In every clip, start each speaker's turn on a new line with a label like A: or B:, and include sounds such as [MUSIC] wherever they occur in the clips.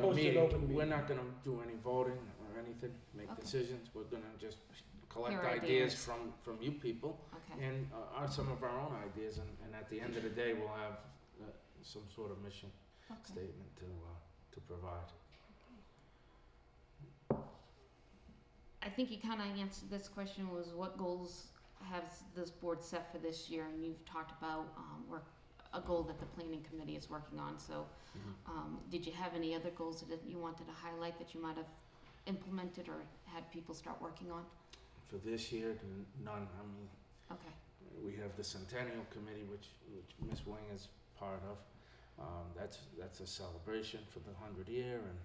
A: Close it open
B: meeting,
A: meeting.
B: we're not gonna do any voting or anything, make
C: Okay.
B: decisions, we're gonna just collect
C: Your
B: ideas
C: ideas.
B: from, from you people
C: Okay,
B: and, uh, our- some of our own ideas, and, and at the end of the day, we'll have, uh, some sort of mission
C: okay.
B: statement to, uh, to provide.
C: I think you kinda answered this question was what goals has this board set for this year? And you've talked about, um, work, a goal that the planning committee is working on, so, um, did you have any other goals that you wanted to highlight that you might have implemented or had people start working on?
B: For this year, n- none, I mean,
C: Okay,
B: we have the Centennial Committee, which, which Ms. Wing is part of. Um, that's, that's a celebration for the hundred year, and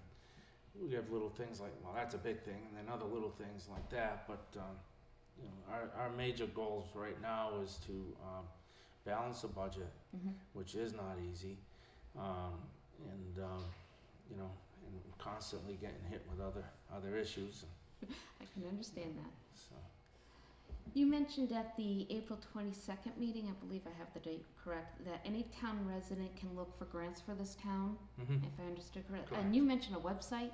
B: we have little things like, well, that's a big thing, and then other little things like that, but, um, you know, our, our major goals right now is to, um, balance the budget,
C: mhm,
B: which is not easy. Um, and, um, you know, and constantly getting hit with other, other issues, and
C: I can understand that.
B: so,
C: You mentioned at the April twenty-second meeting, I believe I have the date correct, that any town resident can look for grants for this town,
B: mhm.
C: if I understood correctly.
B: Correct.
C: And you mentioned a website.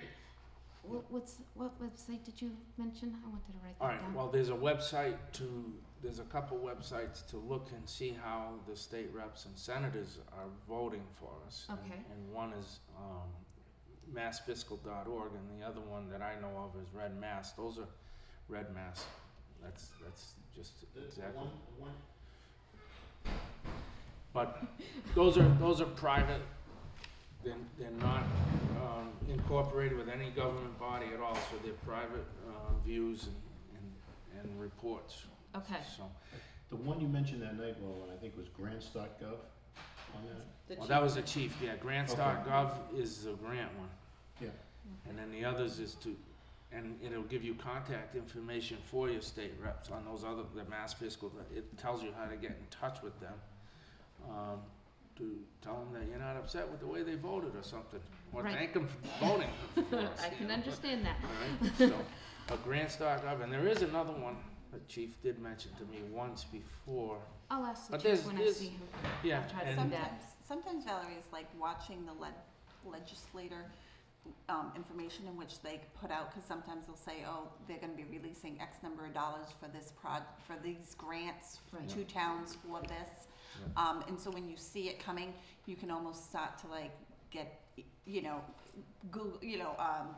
C: What, what's, what website did you mention? I wanted to write
B: All
C: that
B: right,
C: down.
B: well, there's a website to, there's a couple websites to look and see how the state reps and senators are voting for us. And-
C: Okay.
B: And one is, um, massfiscal.org, and the other one that I know of is Red Mass, those are Red Mass, that's, that's just exactly. But those are, those are private, they're, they're not, um, incorporated with any government body at all, so they're private, uh, views and, and, and reports,
C: Okay,
B: so.
A: The one you mentioned that night, Roland, I think was grants.gov on that?
B: Well, that was the chief, yeah, grants.gov is the grant one.
A: Yeah.
B: And then the others is to, and it'll give you contact information for your state reps on those other, the mass fiscal, it tells you how to get in touch with them. Um, to tell them that you're not upset with the way they voted or something, or
C: Right.
B: thank them for
C: [LAUGHS]
B: voting for us.
C: [LAUGHS] I
B: you know, [LAUGHS]
C: can
B: but-
C: understand that.
B: Alright, so, a grants.gov, and there is another one, the chief did mention to me once before,
C: I'll ask the
B: But
C: chief
B: there's-
C: when I
B: there's-
C: see him.
B: yeah,
C: I'll try to do
B: and,
C: that.
D: Sometimes, sometimes Valerie is like watching the leg- legislator um, information in which they put out, because sometimes they'll say, oh, they're gonna be releasing X number of dollars for this prod, for these grants
C: Right.
D: to towns for this.
B: Yeah.
D: Um, and so when you see it coming, you can almost start to like get, you know, Google, you know, um,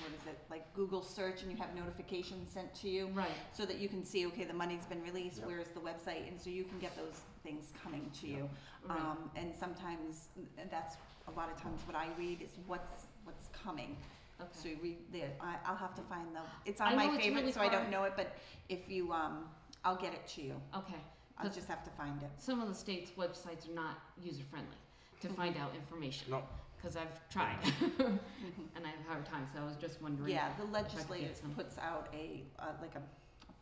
D: what is it, like Google search and you have notifications sent to you
C: Right,
D: so that you can see, okay, the money's been released,
B: Yep.
D: where's the website, and so you can get those things coming to you.
C: right,
D: Um, and sometimes, and that's a lot of times what I read is what's, what's coming. So
C: okay.
D: you read the, I, I'll have to find the, it's
C: I
D: on
C: know
D: my
C: it's really
D: favorite, so I
C: far.
D: don't know it, but if you, um, I'll get it to you.
C: Okay,
D: I'll
C: Does-
D: just have to find it.
C: some of the state's websites are not user-friendly to find out information.
B: no,
C: Cause I've tried [LAUGHS]
D: Mhm.
C: and I have a hard time, so I was just wondering.
D: Yeah, the legislator
C: some.
D: puts out a, uh, like a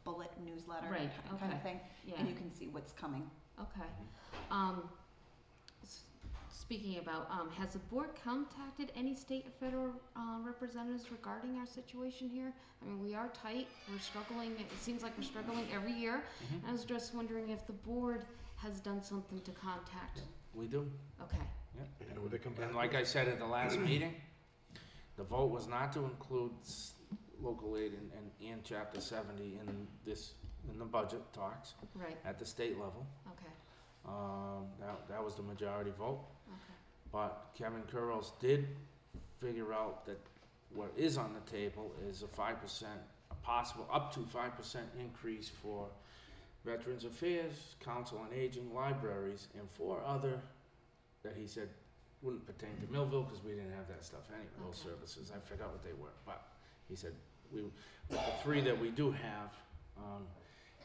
D: bullet newsletter
C: Right,
D: kind
C: okay.
D: of thing,
C: Yeah.
D: and you can see what's coming.
C: Okay. Um, s- speaking about, um, has the board contacted any state or federal, uh, representatives regarding our situation here? I mean, we are tight, we're struggling, it seems like we're struggling every year.
B: Mhm.
C: I was just wondering if the board has done something to contact,
B: we do.
C: okay,
B: And like I said at the [CLEARS THROAT] last meeting, the vote was not to include s- local aid and, and, and chapter seventy in this, in the budget talks
C: right,
B: at the state level.
C: okay,
B: Um, that, that was the majority vote,
C: okay,
B: but Kevin Curls did figure out that what is on the table is a five percent, a possible up to five percent increase for Veterans Affairs, Council on Aging, libraries, and four other that he said wouldn't pertain to Millville because we didn't have that stuff anyway, those
C: Okay.
B: services. I forgot what they were, but he said we, with the three that we do have, um,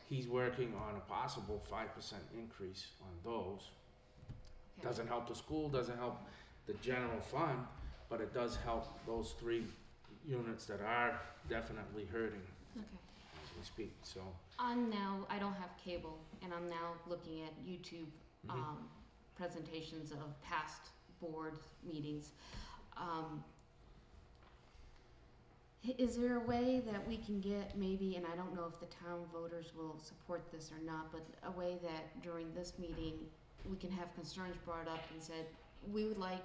B: he's working on a possible five percent increase on those.
C: okay.
B: Doesn't help the school, doesn't help the general fund, but it does help those three units that are definitely hurting
C: Okay.
B: as we speak, so.
C: I'm now, I don't have cable, and I'm now looking at YouTube
B: mhm.
C: um, presentations of past board meetings. Um, i- Is there a way that we can get maybe, and I don't know if the town voters will support this or not, but a way that during this meeting, we can have concerns brought up and said, we would like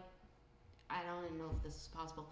C: I don't even know if this is possible,